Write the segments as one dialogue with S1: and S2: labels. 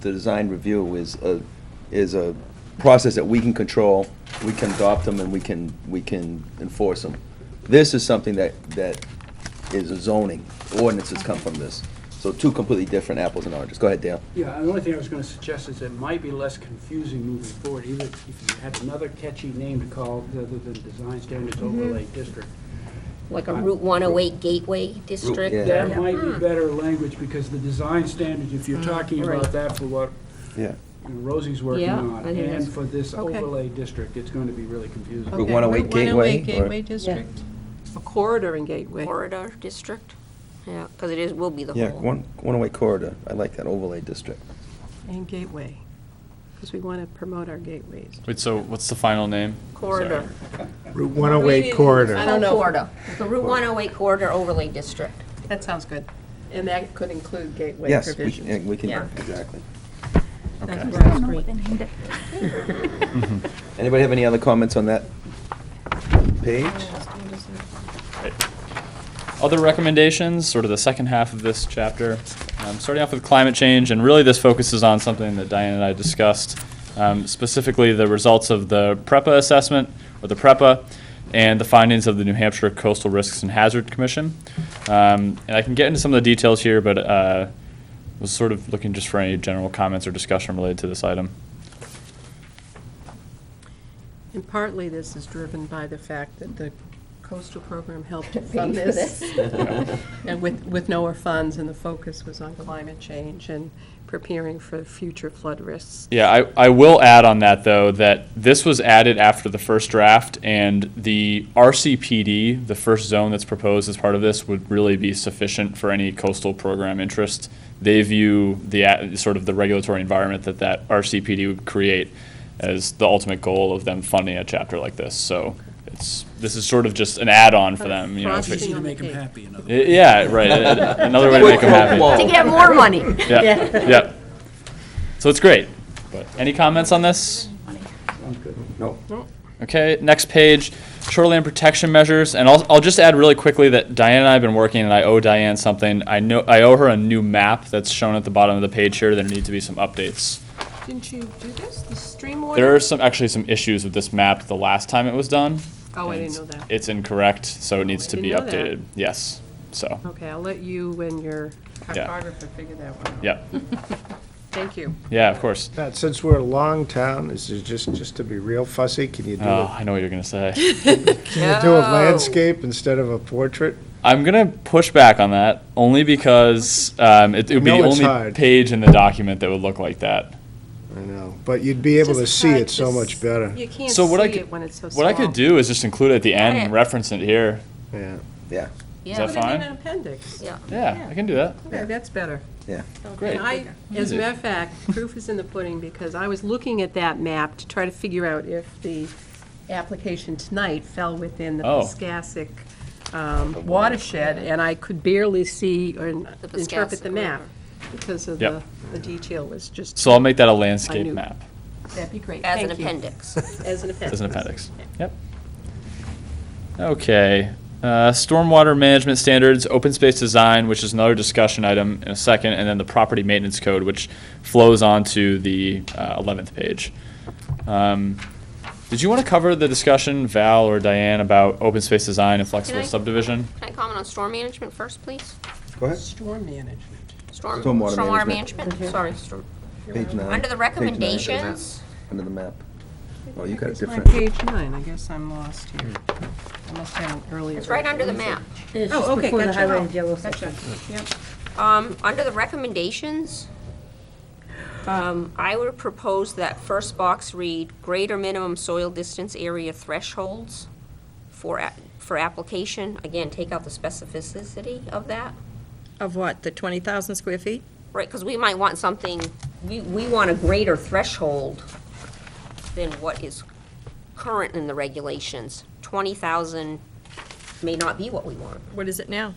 S1: the design review is a, is a process that we can control, we can adopt them, and we can, we can enforce them. This is something that, that is a zoning, ordinances come from this. So two completely different apples and oranges. Go ahead, Dale.
S2: Yeah, and the only thing I was gonna suggest is it might be less confusing moving forward, even if you had another catchy name to call it other than Design Standards Overlay District.
S3: Mm-hmm. Like a Route 108 Gateway District?
S1: yeah.
S2: That might
S3: Mm.
S2: be better language, because the design standards, if you're talking about
S3: right.
S2: that for what
S1: Yeah.
S2: you know, Rosie's working
S3: Yeah,
S2: on,
S3: I think that's-
S2: and for this
S4: okay.
S2: overlay district, it's gonna be really confusing.
S1: Route 108 Gateway, or-
S4: oh Gateway District. A corridor and gateway.
S3: Corridor District? Yeah, because it is, will be the
S1: Yeah,
S3: whole.
S1: one, one away corridor. I like that overlay district.
S4: And gateway, because we want to promote our gateways.
S5: Wait, so what's the final name?
S3: Corridor.
S5: Sorry.
S6: Route 108
S3: I
S6: corridor.
S3: don't
S4: don't
S3: know.
S4: know.
S3: Corridor. The Route 108 Corridor Overlay District.
S4: That sounds good. And that could include gateway
S1: Yes, we
S4: provisions.
S1: can, we can,
S3: Yeah.
S1: exactly.
S5: Okay.
S7: I don't know what they named it.
S1: Anybody have any other comments on that page?
S5: Other recommendations, sort of the second half of this chapter, um, starting off with climate change, and really this focuses on something that Diane and I discussed, um, specifically the results of the PREPA assessment, or the PREPA, and the findings of the New Hampshire Coastal Risks and Hazard Commission. Um, and I can get into some of the details here, but uh, was sort of looking just for any general comments or discussion related to this item.
S4: And partly this is driven by the fact that the coastal program helped to
S3: Pay for
S4: fund this.
S3: this.
S4: And with, with NOAA funds, and the focus was on climate change and preparing for future flood risks.
S5: Yeah, I, I will add on that, though, that this was added after the first draft, and the RCPD, the first zone that's proposed as part of this, would really be sufficient for any coastal program interest. They view the, a- sort of the regulatory environment that that RCPD would create as the ultimate goal of them funding a chapter like this, so it's, this is sort of just an add-on for them, you know. if it's-
S2: Easy
S4: Frosting
S2: to
S4: on the
S2: make them
S4: cake.
S2: happy, in other words.
S5: Y- Yeah, right, a- a- another way to make them happy.
S1: Whoa.
S3: To get
S4: Oh.
S3: more money.
S5: Yeah, yeah. So it's great, but any comments on this?
S1: No.
S5: Okay, next page, shoreline protection measures, and I'll, I'll just add really quickly that Diane and I have been working, and I owe Diane something. I know, I owe her a new map that's shown at the bottom of the page here, there need to be some updates.
S4: Didn't you do this, the streamwater?
S5: There are some, actually some issues with this map the last time it was done.
S4: Oh, I didn't
S5: and
S4: know that.
S5: It's incorrect, so it needs
S4: I
S5: to be
S4: didn't know that.
S5: updated, yes, so,
S4: Okay, I'll let you and your
S5: Yeah.
S4: cartographer figure that one out.
S5: yeah,
S4: Thank you.
S5: yeah, of course.
S6: Pat, since we're a long town, is it just, just to be real fussy, can you do,
S5: Oh,
S6: a-
S5: I know what you're gonna say.
S6: can you do a landscape instead of a portrait?
S5: I'm gonna push back on that, only because, um, it it would be
S6: I know
S5: the
S6: it's
S5: only
S6: hard.
S5: page in the document that would look like that.
S6: I know, but you'd be able to
S4: Just
S6: see
S4: hard
S6: it
S4: to
S6: so
S4: s-
S6: much better,
S4: You can't see
S5: So what I could-
S4: it when it's so small.
S5: What I could do is just include it at the end and
S3: it.
S5: reference it here.
S6: yeah.
S1: Yeah,
S5: Is that
S3: Yeah,
S4: Put it in
S5: fine?
S4: an appendix.
S3: yeah.
S5: Yeah, I can do that.
S4: Okay, that's better.
S1: yeah.
S5: Great.
S4: And I, as a matter of fact, proof is in the pudding, because I was looking at that map to try to figure out if the application tonight fell within the
S5: Oh.
S4: Piscassic um, watershed, and I could barely see or n-
S3: The Piscassic
S4: interpret the map
S3: River.
S4: because of
S5: Yep.
S4: the, the detail was just,
S5: So I'll make that a
S4: I
S5: landscape
S4: knew.
S5: map
S4: that'd be great.
S3: As an
S4: Thank you.
S3: appendix.
S4: As an appendix.
S5: as an appendix. Yep. Okay. Uh, stormwater management standards, open space design, which is another discussion item in a second, and then the property maintenance code, which flows onto the uh, 11th page. Um, did you want to cover the discussion, Val or Diane, about open space design and flexible
S3: I-
S5: subdivision?
S3: Can I comment on storm management first, please?
S1: Go ahead.
S4: Storm management.
S3: Storm,
S1: Stormwater
S3: stormwater
S1: management.
S3: management, sorry, storm.
S1: Page nine.
S3: Under the
S1: Page nine.
S3: recommendations,
S1: Under the map. Oh, you got it
S4: It's my
S1: different.
S4: page nine, I guess I'm lost here. I must have an earlier.
S3: it's right under the
S4: version.
S3: map.
S4: Oh, okay,
S8: Hmm. before the highway
S4: gotcha.
S8: and yellow
S3: Gotcha.
S8: section.
S3: Um, under the recommendations, um, I would propose that first box read greater minimum soil distance area thresholds for, a- for application. Again, take out the specificity of that.
S8: Of what, the 20,000 square feet?
S3: Right, because we might want something, we, we want a greater threshold than what is current in the regulations. Twenty thousand may not be what we want.
S8: What is it now?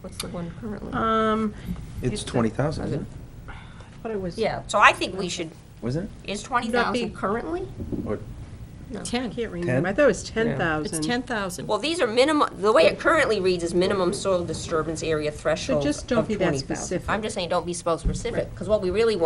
S3: What's the one currently?
S4: Um,
S1: It's twenty thousand, isn't it?
S4: what it was.
S3: Yeah, so I think we should,
S1: Wasn't
S3: is twenty
S8: That'd
S3: thousand
S8: be-
S3: currently?
S4: I
S8: 10.
S4: can't remember. I thought it was 10,000.
S8: It's 10,000.
S3: Well, these are minimum, the way it currently reads is minimum soil disturbance area threshold
S4: just don't
S3: of
S4: be that
S3: 20,000.
S4: specific.
S3: I'm just saying, don't be so specific, because what we really want